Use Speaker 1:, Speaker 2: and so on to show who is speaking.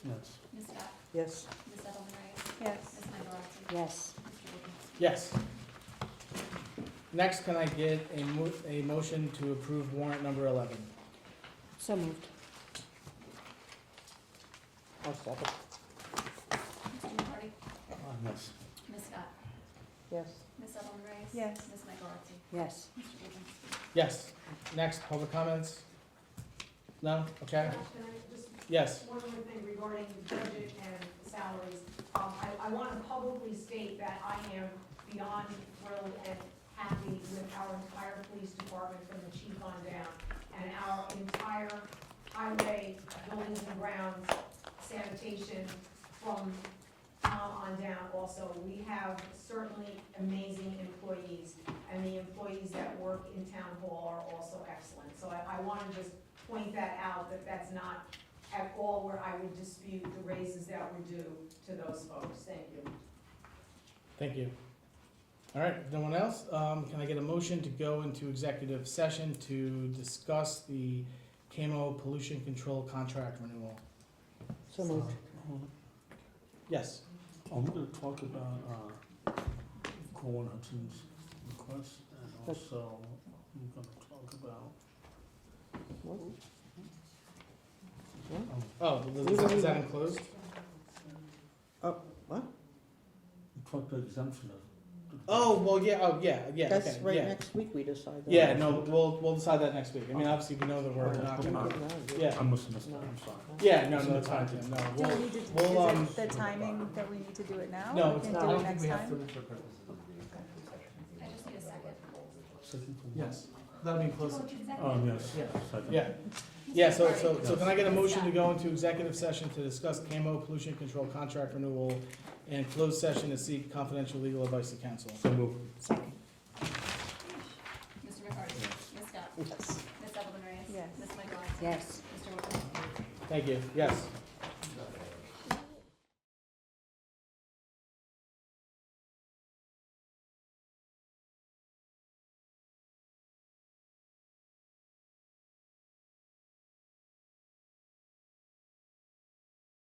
Speaker 1: Yes.
Speaker 2: Ms. Scott?
Speaker 3: Yes.
Speaker 2: Ms. Edelman Reyes?
Speaker 4: Yes.
Speaker 2: Ms. Michael Rotzi?
Speaker 4: Yes.
Speaker 2: Mr.
Speaker 1: Yes.
Speaker 2: Wojciechowski?
Speaker 1: Next, can I get a mo- a motion to approve warrant number eleven?
Speaker 4: So moved.
Speaker 3: I'll second.
Speaker 2: Mr. McCarty?
Speaker 1: Yes.
Speaker 2: Ms. Scott?
Speaker 3: Yes.
Speaker 2: Ms. Edelman Reyes?
Speaker 4: Yes.
Speaker 2: Ms. Michael Rotzi?
Speaker 4: Yes.
Speaker 2: Mr. Wojciechowski?
Speaker 1: Yes. Next, public comments? No? Okay.
Speaker 5: Josh, Can I just
Speaker 1: Yes.
Speaker 5: One more thing regarding budget and salaries. Um, I, I want to publicly state that I am beyond thrilled and happy with our entire police department from the chief on down. And our entire highway, buildings and grounds, sanitation from Tom on down also. We have certainly amazing employees. And the employees that work in town hall are also excellent. So I, I want to just point that out, that that's not at all where I would dispute the raises that were due to those folks. Thank you.
Speaker 1: Thank you. All right, no one else? Um, can I get a motion to go into executive session to discuss the camo pollution control contract renewal?
Speaker 4: So moved.
Speaker 1: Yes.
Speaker 6: I'm gonna talk about, uh, Corwin Hudson's request, and also, I'm gonna talk about, um,
Speaker 1: Oh, is that- is that enclosed?
Speaker 6: we talked about exemption of.
Speaker 1: Oh, well, yeah, oh, yeah, yeah, okay, yeah.
Speaker 3: That's right, next week we decide that.
Speaker 1: Yeah, no, we'll, we'll decide that next week. I mean, obviously, we know that we're
Speaker 6: Okay.
Speaker 1: not
Speaker 6: Okay.
Speaker 1: gonna.
Speaker 6: I
Speaker 1: Yeah,
Speaker 6: must have missed that, I'm sorry.
Speaker 1: yeah, no, no, it's fine, Tim, no,
Speaker 4: Do we
Speaker 1: we'll,
Speaker 4: need to, is
Speaker 1: we'll, um,
Speaker 4: it the timing that we need to do it now?
Speaker 1: No,
Speaker 4: We
Speaker 1: it's
Speaker 4: can
Speaker 1: not.
Speaker 4: do
Speaker 1: I
Speaker 4: it
Speaker 1: don't
Speaker 4: next time?
Speaker 2: I just need a second.
Speaker 6: Second from-
Speaker 1: yes, that'll be close.
Speaker 2: Go to executive.
Speaker 6: Um, yes,
Speaker 1: Yeah.
Speaker 6: second.
Speaker 1: Yeah, yeah, so,
Speaker 2: Mr.
Speaker 1: so,
Speaker 2: McCarty?
Speaker 1: so can I get a
Speaker 2: Ms.
Speaker 1: motion to
Speaker 2: Scott?
Speaker 1: go into executive session to discuss camo pollution control contract renewal and closed session to seek confidential legal advice to counsel?
Speaker 6: So moved.
Speaker 4: Second.
Speaker 2: Mr. McCarty? Ms. Scott?
Speaker 4: Yes.
Speaker 2: Ms. Edelman Reyes?
Speaker 4: Yes.
Speaker 2: Ms. Michael Rotzi?
Speaker 4: Yes.
Speaker 2: Mr. Wojciechowski?
Speaker 1: Thank you, yes.